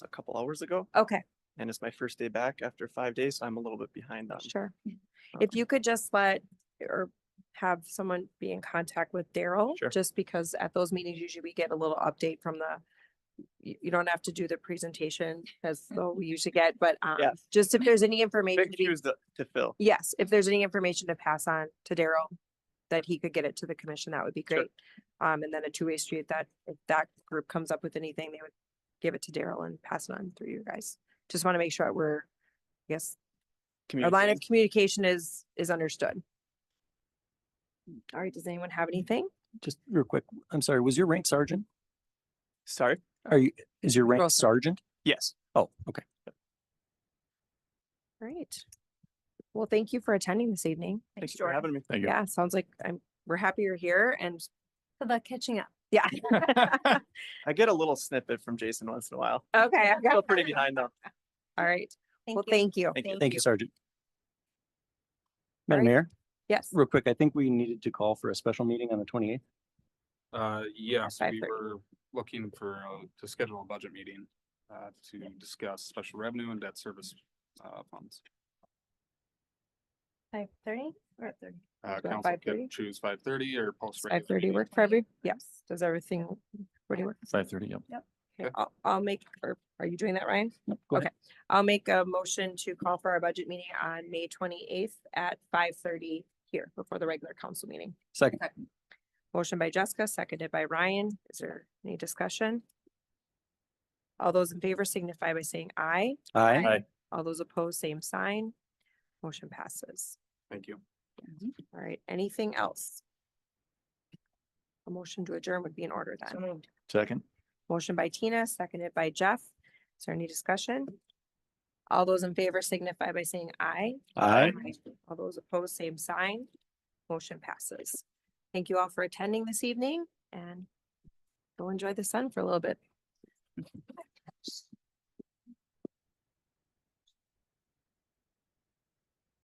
a couple hours ago Okay, and it's my first day back after five days. so I'm a little bit behind on. sure. um, If you could just let, or have someone be in contact with Daryl, Sure. just because at those meetings, usually we get a little update from the, you, you don't have to do the presentation, as Mm-hmm. though we usually get, but, um, Yeah. just if there's any information. Big to be- shoes to to fill. Yes, if there's any information to pass on to Daryl, that he could get it to the commission, that would be Sure. great. Um, and then a two-way street, that, if that group comes up with anything, they would give it to Daryl and pass it on through you guys. Just want to make sure that we're, yes, our line of communicating. communication is, is understood. All right, does anyone have anything? Just real quick, I'm sorry, was your rank sergeant? Sorry, Are you, is your Drill rank sergeant. sergeant? yes. Oh, okay. Great. Well, thank you for attending this evening. Thanks for having me. Thank Yeah, sounds like I'm, we're happy you're here and How About catching up. yeah, I get a little snippet from Jason once in a while. okay. I've got- Still pretty behind though. All right. Thank Well, you. thank you. Thank you. Thank you, Sergeant. Madam Alright. Mayor, Yes. real quick, I think we needed to call for a special meeting on the twenty eighth. Uh, yes, we 5:30. were looking for, uh, to schedule a budget meeting, uh, to discuss special revenue and debt service, uh, funds. Five thirty or thirty? Uh, Is that council 5:30? could choose five thirty or post. regular Five thirty meeting. work for every, yes, does everything, what do you work? Five thirty, yep. Okay, Okay. I'll, I'll make, or are you doing that, Ryan? Go ahead. I'll make a motion to call for our budget meeting on May twenty-eighth at five thirty here before the regular council meeting. Second, Motion by Jessica, seconded by Ryan. Is there any discussion? All those in favor signify by saying aye. aye. All those opposed, same sign. Motion passes. Thank you. All right, anything else? A motion to adjourn would be in order then. Second. Motion by Tina, seconded by Jeff. Is there any discussion? All those in favor signify by saying aye. Aye. All those opposed, same sign. Motion passes. Thank you all for attending this evening and go enjoy the sun for a little bit.